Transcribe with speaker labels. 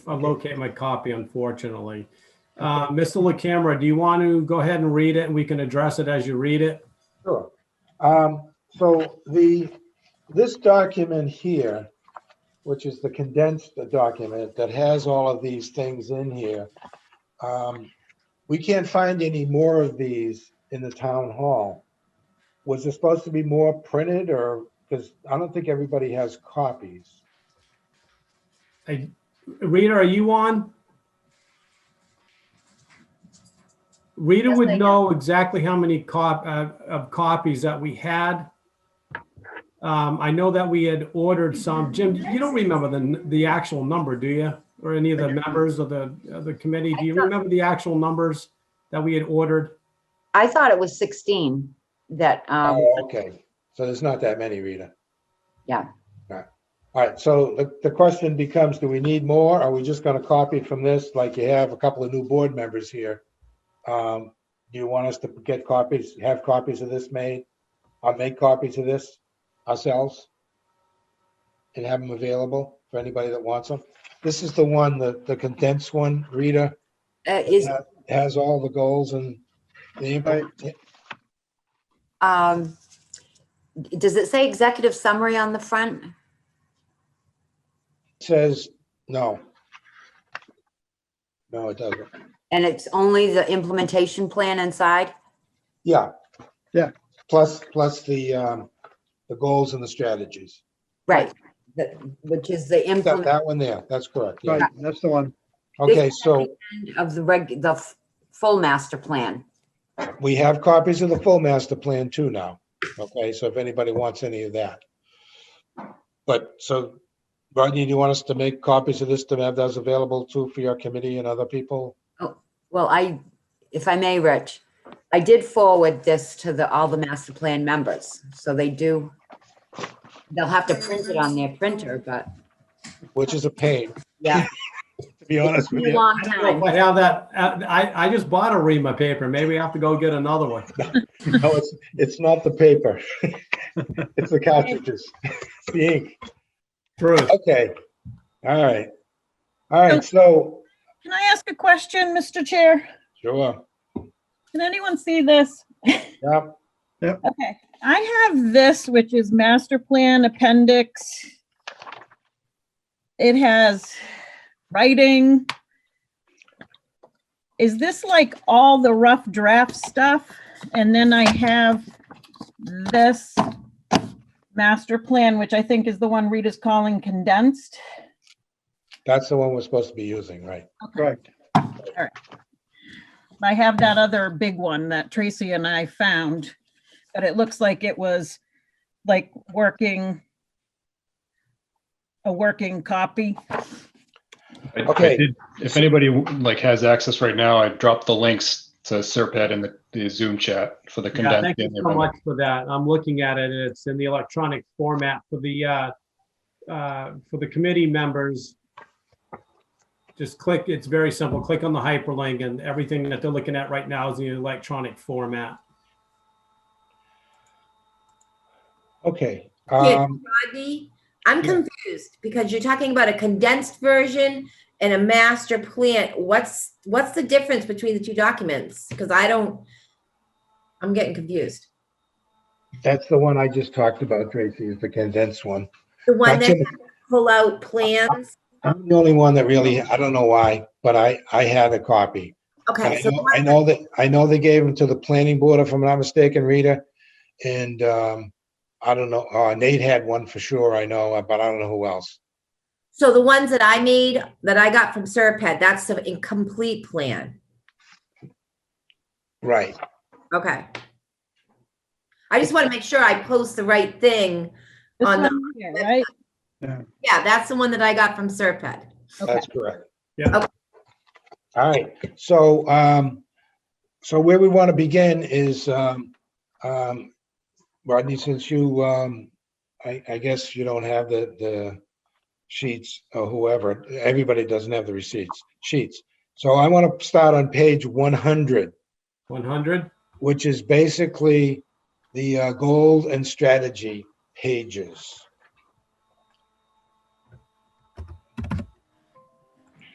Speaker 1: I locate my copy, unfortunately. Uh, Mr. LaCamera, do you want to go ahead and read it and we can address it as you read it?
Speaker 2: Sure. Um, So the, this document here, which is the condensed document that has all of these things in here, um, we can't find any more of these in the town hall. Was there supposed to be more printed or, because I don't think everybody has copies.
Speaker 1: I- Rita, are you on? Rita
Speaker 3: Yes, I
Speaker 1: would
Speaker 3: am.
Speaker 1: know exactly how many cop, uh, of copies that we had. Um, I know that we had ordered some. Jim, you don't remember the, the actual number, do you? Or any of the members of the, of the committee? Do you remember the actual numbers that we had ordered?
Speaker 3: I thought it was 16 that, um,
Speaker 2: Oh, okay. So there's not that many, Rita.
Speaker 3: Yeah.
Speaker 2: All right, so the, the question becomes, do we need more? Are we just gonna copy it from this, like you have a couple of new board members here? Um, do you want us to get copies, have copies of this made? I'll make copies of this ourselves? And have them available for anybody that wants them? This is the one, the, the condensed one, Rita,
Speaker 3: uh, is,
Speaker 2: has all the goals and the, impact.
Speaker 3: um, does it say executive summary on the front?
Speaker 2: says, no. No, it doesn't.
Speaker 3: And it's only the implementation plan inside?
Speaker 2: Yeah. Yeah. Plus, plus the, um, the goals and the strategies.
Speaker 3: Right, the- which is the
Speaker 2: That,
Speaker 3: implement
Speaker 2: that one there, that's correct. yeah.
Speaker 4: Right, that's the one.
Speaker 2: Okay, so
Speaker 3: of the reg, the f- full master plan.
Speaker 2: we have copies of the full master plan too now. Okay, so if anybody wants any of that. But so, Rodney, do you want us to make copies of this to have those available too for your committee and other people?
Speaker 3: Well, I, if I may, Rich, I did forward this to the, all the master plan members, so they do, they'll have to print it on their printer, but,
Speaker 2: Which is a pain,
Speaker 3: yeah.
Speaker 2: to be
Speaker 3: It's
Speaker 2: honest
Speaker 3: been
Speaker 2: with
Speaker 3: a
Speaker 2: you.
Speaker 3: Long
Speaker 1: I don't
Speaker 3: time.
Speaker 1: know if I have that, uh, I, I just bought a Rima paper. Maybe I have to go get another one.
Speaker 2: No, it's, it's not the paper. It's the cartridges, It's the ink.
Speaker 1: True.
Speaker 2: Okay, all right. All right, so,
Speaker 5: Can I ask a question, Mr. Chair?
Speaker 2: sure,
Speaker 5: Can anyone see this?
Speaker 2: yeah,
Speaker 5: Okay, I have this, which is master plan appendix. It has writing. Is this like all the rough draft stuff? And then I have this master plan, which I think is the one Rita's calling condensed.
Speaker 2: that's the one we're supposed to be using, right?
Speaker 4: Correct.
Speaker 5: I have that other big one that Tracy and I found, but it looks like it was like working a working copy.
Speaker 6: I- I
Speaker 2: Okay.
Speaker 6: did- If anybody like has access right now, I dropped the links to Serpad in the- the Zoom chat for the
Speaker 1: Yeah,
Speaker 6: condensed.
Speaker 1: thank you
Speaker 6: and
Speaker 1: so
Speaker 6: everything.
Speaker 1: much for that. I'm looking at it, and it's in the electronic format for the, uh, uh, for the committee members. Just click, it's very simple. Click on the hyperlink, and everything that they're looking at right now is in the electronic format.
Speaker 2: Okay,
Speaker 7: Yeah.
Speaker 2: um,
Speaker 7: Rodney, I'm
Speaker 2: Yeah.
Speaker 7: confused because you're talking about a condensed version and a master plan. What's, what's the difference between the two documents? Because I don't, I'm getting confused.
Speaker 2: that's the one I just talked about, Tracy, is the condensed one.
Speaker 7: The one
Speaker 2: That's
Speaker 7: that
Speaker 2: in-
Speaker 7: pull out plans.
Speaker 2: I'm the only one that really, I don't know why, but I, I had a copy. And I
Speaker 7: Okay, so
Speaker 2: know- I know that, I know they gave them to the planning board, if I'm not mistaken, Rita. And, um, I don't know, uh, Nate had one for sure, I know, uh, but I don't know who else.
Speaker 7: so the ones that I made, that I got from Serped, that's the incomplete plan.
Speaker 2: Right,
Speaker 7: Okay. I just want to make sure I post the right thing.
Speaker 5: This
Speaker 7: On the-
Speaker 5: one here, right?
Speaker 7: Yeah, that's the one that I got from Serped.
Speaker 5: Okay.
Speaker 2: that's correct.
Speaker 1: Yeah.
Speaker 7: Okay.
Speaker 2: All right, so, um, so where we want to begin is, um, um, Rodney, since you, um, I, I guess you don't have the, the sheets or whoever, everybody doesn't have the receipts, sheets. So I want to start on page one hundred,
Speaker 1: One hundred?
Speaker 2: which is basically the, uh, goal and strategy pages.